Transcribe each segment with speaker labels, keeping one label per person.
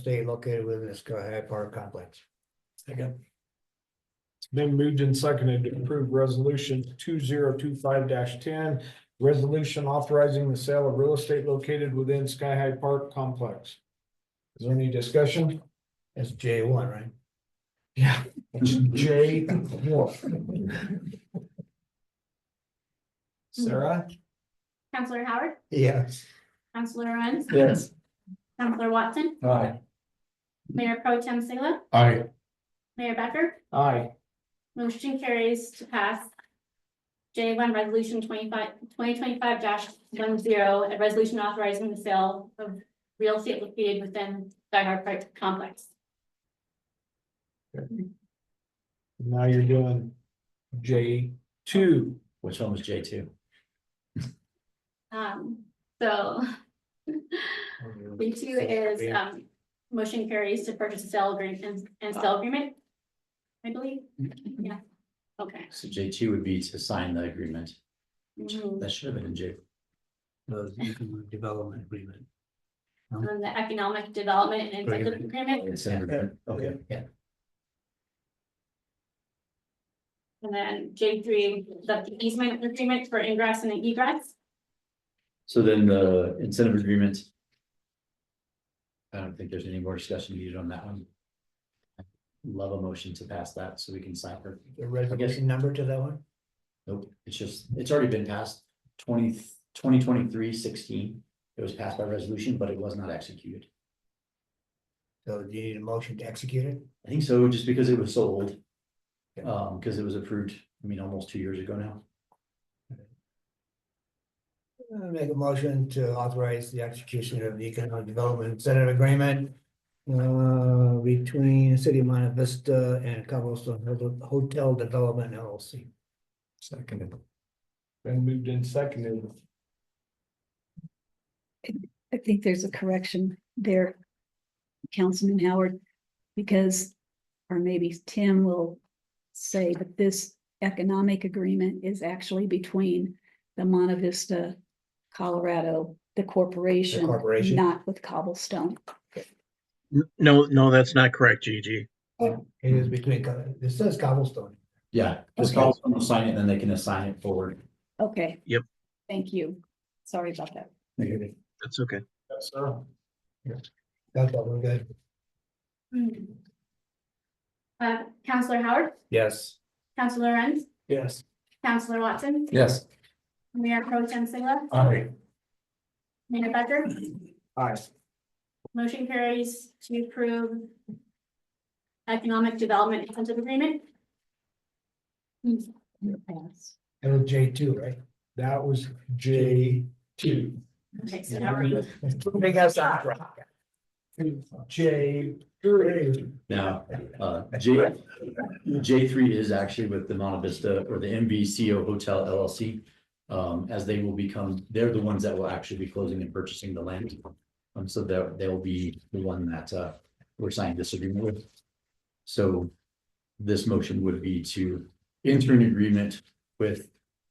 Speaker 1: state located within the Sky High Park complex.
Speaker 2: Second. Then moved and seconded to approve resolution two zero two five ten. Resolution authorizing the sale of real estate located within Sky High Park complex. Is there any discussion?
Speaker 1: That's J one, right?
Speaker 2: Yeah. Jay Wolf. Sarah?
Speaker 3: Counselor Howard,
Speaker 1: Yes.
Speaker 3: Counselor Owens,
Speaker 2: Yes.
Speaker 3: Counselor Watson,
Speaker 2: Aye.
Speaker 3: Mayor Pro Tem Sigla,
Speaker 2: Aye.
Speaker 3: Mayor Becker,
Speaker 2: Aye.
Speaker 3: motion carries to pass. J one, resolution 25 2025 one zero, a resolution authorizing the sale of real estate located within Sky Harbor Park complex.
Speaker 2: Now you're doing J two.
Speaker 4: Which one was J two?
Speaker 3: Um, so B two is, um, motion carries to purchase sale agreement and- and sale agreement. I believe, yeah, okay.
Speaker 4: So J two would be to sign the agreement.
Speaker 3: Mhm.
Speaker 4: That should have been in J.
Speaker 1: The economic development agreement.
Speaker 3: on the economic development and incentive agreement,
Speaker 4: It's in agreement. Okay, yeah.
Speaker 3: and then J three, the easement agreement for ingress and egress.
Speaker 4: So then the incentive agreement. I don't think there's any more discussion needed on that one. Love a motion to pass that so we can sign it.
Speaker 1: The resolution number to that one?
Speaker 4: Nope, it's just, it's already been passed 20 2023 16. It was passed by resolution, but it was not executed.
Speaker 1: So do you need a motion to execute it?
Speaker 4: I think so, just because it was sold.
Speaker 1: Yeah.
Speaker 4: Um, because it was approved, I mean, almost two years ago now.
Speaker 1: Uh, Make a motion to authorize the execution of the economic development incentive agreement. Uh, between the City of Monte Vista and Cobblestone Hill Hotel Development LLC. Second.
Speaker 2: Then moved and seconded.
Speaker 5: I think there's a correction there, Councilman Howard, because, or maybe Tim will say, but this economic agreement is actually between the Monta Vista, Colorado, the corporation,
Speaker 1: corporation.
Speaker 5: not with Cobblestone.
Speaker 6: N- No, no, that's not correct, Gigi.
Speaker 1: It is between, Co- this says Cobblestone.
Speaker 4: Yeah, this
Speaker 5: Okay.
Speaker 4: calls them to sign it, and then they can assign it forward.
Speaker 5: Okay.
Speaker 6: Yep.
Speaker 5: Thank you. Sorry about that.
Speaker 1: That's
Speaker 6: That's okay.
Speaker 2: Yes, sir.
Speaker 1: all we're good.
Speaker 3: Hmm. Uh, Counselor Howard,
Speaker 4: Yes.
Speaker 3: Counselor Renz,
Speaker 2: Yes.
Speaker 3: Counselor Watson,
Speaker 4: Yes.
Speaker 3: Mayor Pro Tem Sigla,
Speaker 2: Aye.
Speaker 3: Mayor Becker,
Speaker 2: Aye.
Speaker 3: motion carries to approve economic development incentive agreement.
Speaker 5: Pass.
Speaker 1: That was J two, right?
Speaker 2: That was J two.
Speaker 3: Okay, so now we're,
Speaker 1: Big ass rock.
Speaker 2: J three.
Speaker 4: Now, uh, J, J three is actually with the Monte Vista or the MVCO Hotel LLC. Um, as they will become, they're the ones that will actually be closing and purchasing the land. Um, so they'll, they'll be the one that, uh, we're signing this agreement with. So this motion would be to enter an agreement with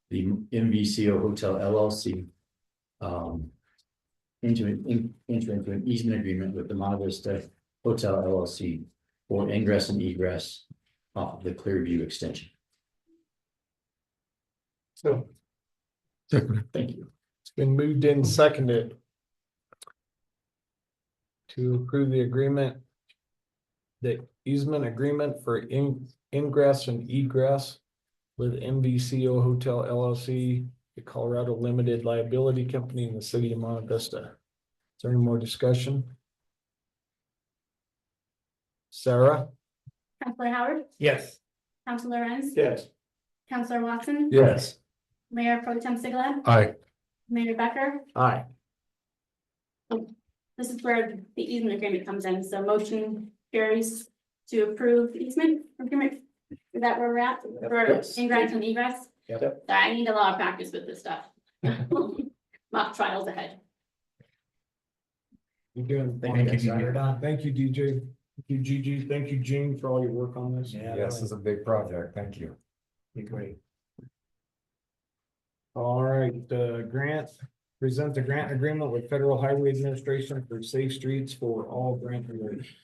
Speaker 4: the MVCO Hotel LLC. Um, into, an- in- enter into an easement agreement with the Monte Vista Hotel LLC for ingress and egress off of the Clearview extension.
Speaker 2: So
Speaker 4: Thank you.
Speaker 2: it's been moved and seconded. To approve the agreement. The easement agreement for in ingress and egress. With MVCO Hotel LLC, the Colorado Limited Liability Company in the city of Monte Vista. Is there any more discussion? Sarah?
Speaker 3: Counselor Howard,
Speaker 1: Yes.
Speaker 3: Counselor Renz,
Speaker 2: Yes.
Speaker 3: Counselor Watson,
Speaker 2: Yes.
Speaker 3: Mayor Pro Tem Sigla,
Speaker 2: Aye.
Speaker 3: Mayor Becker,
Speaker 2: Aye.
Speaker 3: This is where the easement agreement comes in, so motion carries to approve the easement agreement. Is that where we're at, for
Speaker 2: Yes.
Speaker 3: ingress and egress?
Speaker 2: Yep.
Speaker 3: Sorry, I need a lot of practice with this stuff. Mock trials ahead.
Speaker 2: You're doing.
Speaker 4: Thank you, Gigi.
Speaker 2: Thank you, DJ. Thank you, Gigi. Thank you, Gene, for all your work on this.
Speaker 1: Yeah. Yes, it's
Speaker 2: a big project. Thank you.
Speaker 1: Be great.
Speaker 2: All right, uh, grant Present the grant agreement with Federal Highway Administration for Safe Streets for all grant awards.